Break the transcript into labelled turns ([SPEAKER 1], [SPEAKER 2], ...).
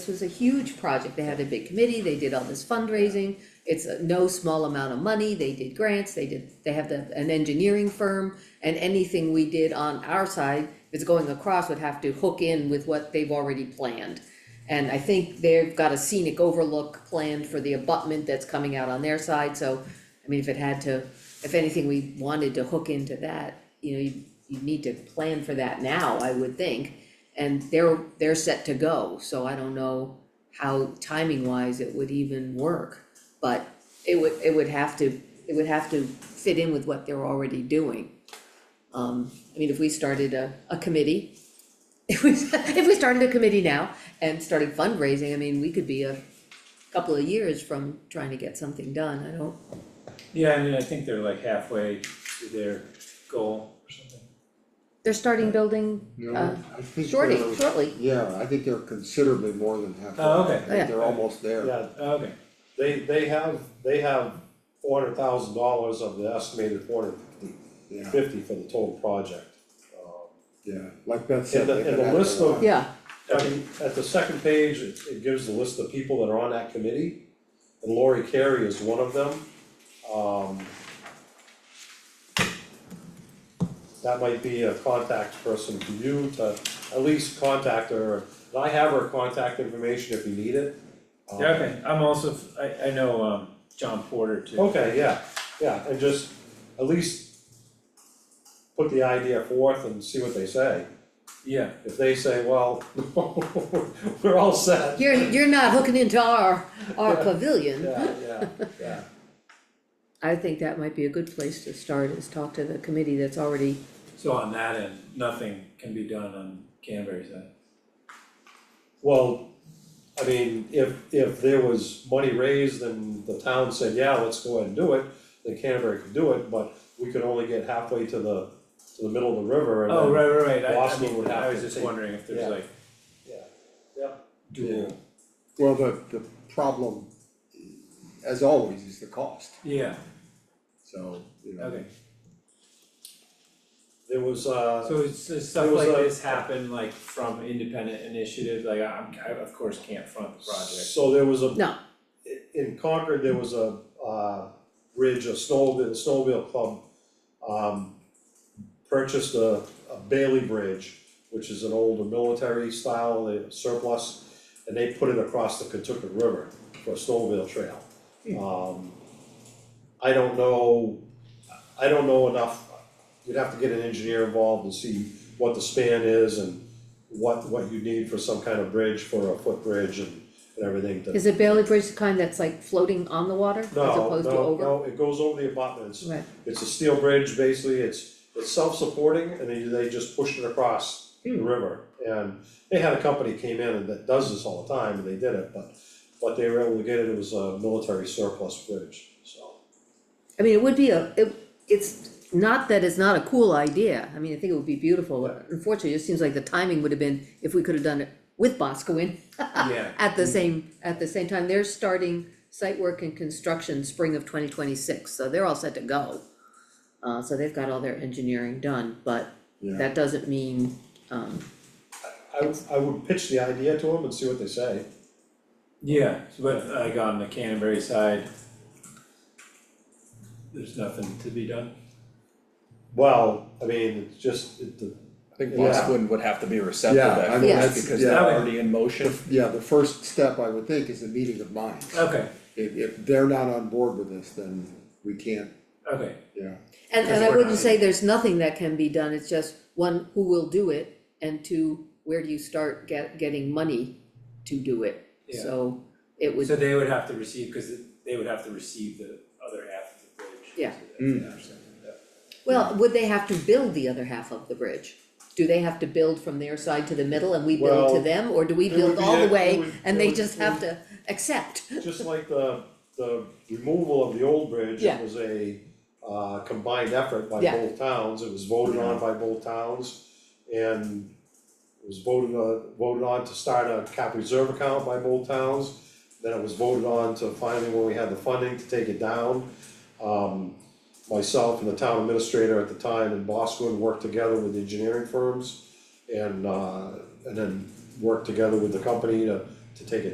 [SPEAKER 1] This was a huge project, they had a big committee, they did all this fundraising, it's a no small amount of money, they did grants, they did, they have the, an engineering firm. And anything we did on our side, if it's going across, would have to hook in with what they've already planned. And I think they've got a scenic overlook planned for the abutment that's coming out on their side, so, I mean, if it had to, if anything, we wanted to hook into that, you know, you, you need to plan for that now, I would think. And they're, they're set to go, so I don't know how timing wise it would even work. But it would, it would have to, it would have to fit in with what they're already doing. Um, I mean, if we started a, a committee, if we, if we started a committee now and started fundraising, I mean, we could be a couple of years from trying to get something done, I don't,
[SPEAKER 2] Yeah, I mean, I think they're like halfway to their goal or something.
[SPEAKER 1] they're starting building Uh,
[SPEAKER 3] No, I think
[SPEAKER 1] shortly,
[SPEAKER 3] they're-
[SPEAKER 1] shortly.
[SPEAKER 3] Yeah, I think they're considerably more than half.
[SPEAKER 2] Oh, okay.
[SPEAKER 3] I think they're almost there.
[SPEAKER 4] Yeah,
[SPEAKER 2] Okay,
[SPEAKER 4] they, they have, they have four hundred thousand dollars of the estimated four hundred
[SPEAKER 3] Yeah,
[SPEAKER 4] fifty for the total project. Um,
[SPEAKER 3] yeah, like Beth
[SPEAKER 4] And
[SPEAKER 3] said,
[SPEAKER 4] the-
[SPEAKER 3] they could
[SPEAKER 4] and the
[SPEAKER 3] add a
[SPEAKER 4] list of-
[SPEAKER 3] lot.
[SPEAKER 1] Yeah,
[SPEAKER 4] I mean, at the second page, it, it gives the list of people that are on that committee, and Lori Carey is one of them. Um, That might be a contact person for you to at least contact her, and I have her contact information if you need it. Um,
[SPEAKER 2] yeah, okay, I'm also, f- I I know um John Porter too.
[SPEAKER 4] Okay, yeah, yeah, and just at least put the idea forth and see what they say.
[SPEAKER 2] Yeah,
[SPEAKER 4] If they say, well, we're all set,
[SPEAKER 1] you're, you're not hooking into our, our pavilion.
[SPEAKER 4] yeah, yeah, yeah,
[SPEAKER 1] I think that might be a good place to start is talk to the committee that's already,
[SPEAKER 2] so on that end, nothing can be done on Canterbury side.
[SPEAKER 4] well, I mean, if, if there was money raised and the town said, yeah, let's go ahead and do it, then Canterbury could do it, but we could only get halfway to the, to the middle of the river and then.
[SPEAKER 2] Oh, right, right, right, I I
[SPEAKER 4] Boston
[SPEAKER 2] mean,
[SPEAKER 4] would have
[SPEAKER 2] I was
[SPEAKER 4] to
[SPEAKER 2] just
[SPEAKER 4] take-
[SPEAKER 2] wondering if there's
[SPEAKER 4] yeah.
[SPEAKER 2] like
[SPEAKER 4] Yeah, yeah,
[SPEAKER 2] dual,
[SPEAKER 3] Well, the, the problem, as always, is the cost,
[SPEAKER 2] yeah,
[SPEAKER 3] so, you know.
[SPEAKER 2] okay.
[SPEAKER 4] there was, uh,
[SPEAKER 2] So it's does stuff
[SPEAKER 4] There was
[SPEAKER 2] like
[SPEAKER 4] a-
[SPEAKER 2] this happen like from independent initiatives, like I'm, I of course can't front the project.
[SPEAKER 4] So there was a.
[SPEAKER 1] No.
[SPEAKER 4] i- In Concord, there was a uh bridge, a snowmobile, the snowmobile club um purchased a a Bailey Bridge, which is an older military style uh, surplus, and they put it across the Kentucky River for a snowmobile trail.
[SPEAKER 1] Hmm.
[SPEAKER 4] Um I don't know, I don't know enough, you'd have to get an engineer involved and see what the span is and what what you need for some kind of bridge, for a footbridge and and everything to.
[SPEAKER 1] is it Bailey Bridge the kind that's like floating on the water as
[SPEAKER 4] No,
[SPEAKER 1] opposed to
[SPEAKER 4] no,
[SPEAKER 1] over?
[SPEAKER 4] no, it goes over the abutments,
[SPEAKER 1] Right,
[SPEAKER 4] it's a steel bridge, basically, it's it's self-supporting and they they just pushed it across the river. And they had a company came in and that does this all the time and they did it, but but they were able to get it, it was a military surplus bridge, so.
[SPEAKER 1] I mean, it would be a, it, it's not that it's not a cool idea, I mean, I think it would be beautiful, but unfortunately, it just seems like the timing would have been, if we could have done it with Boscoin
[SPEAKER 2] Yeah,
[SPEAKER 1] at
[SPEAKER 4] Mm.
[SPEAKER 1] the same, at the same time, they're starting site work and construction spring of twenty twenty-six, so they're all set to go. Uh, so they've got all their engineering done, but
[SPEAKER 3] Yeah.
[SPEAKER 1] that doesn't mean, um,
[SPEAKER 4] I would, I would pitch the idea to them and see what they say.
[SPEAKER 2] yeah, so but like on the Canterbury side, there's nothing to be done.
[SPEAKER 4] Well, I mean, it's just, it, the,
[SPEAKER 5] I think
[SPEAKER 4] Yeah.
[SPEAKER 5] Bosquen would have to be receptive
[SPEAKER 3] Yeah, I mean,
[SPEAKER 5] at first,
[SPEAKER 3] that's-
[SPEAKER 5] because
[SPEAKER 3] yeah.
[SPEAKER 5] they're already in motion.
[SPEAKER 3] Yeah, the first step, I would think, is a meeting of minds.
[SPEAKER 2] Okay,
[SPEAKER 3] If, if they're not on board with this, then we can't,
[SPEAKER 2] okay,
[SPEAKER 3] yeah,
[SPEAKER 1] And and
[SPEAKER 3] Because
[SPEAKER 1] I
[SPEAKER 3] we're
[SPEAKER 1] wouldn't
[SPEAKER 3] not-
[SPEAKER 1] say there's nothing that can be done, it's just, one, who will do it, and two, where do you start get getting money to do it?
[SPEAKER 2] Yeah.
[SPEAKER 1] So it would,
[SPEAKER 2] So they would have to receive, cause it- they would have to receive the other half of the bridge.
[SPEAKER 1] Yeah.
[SPEAKER 2] So that's interesting, yeah.
[SPEAKER 1] well, would they have to build the other half of the bridge? Do they have to build from their side to the middle and we build to
[SPEAKER 4] Well,
[SPEAKER 1] them, or do we
[SPEAKER 4] it
[SPEAKER 1] build
[SPEAKER 4] would be
[SPEAKER 1] all
[SPEAKER 4] a-
[SPEAKER 1] the
[SPEAKER 4] it
[SPEAKER 1] way
[SPEAKER 4] would-
[SPEAKER 1] and
[SPEAKER 4] it
[SPEAKER 1] they
[SPEAKER 4] would-
[SPEAKER 1] just have to accept?
[SPEAKER 4] just like the, the removal of the old bridge,
[SPEAKER 1] Yeah.
[SPEAKER 4] it was a uh, combined effort by
[SPEAKER 1] Yeah.
[SPEAKER 4] both towns, it was voted on by both towns. And it was voted on, voted on to start a cap reserve account by both towns. Then it was voted on to finally, when we had the funding, to take it down. Um, myself and the town administrator at the time in Boscoon worked together with the engineering firms and uh, and then worked together with the company to to take it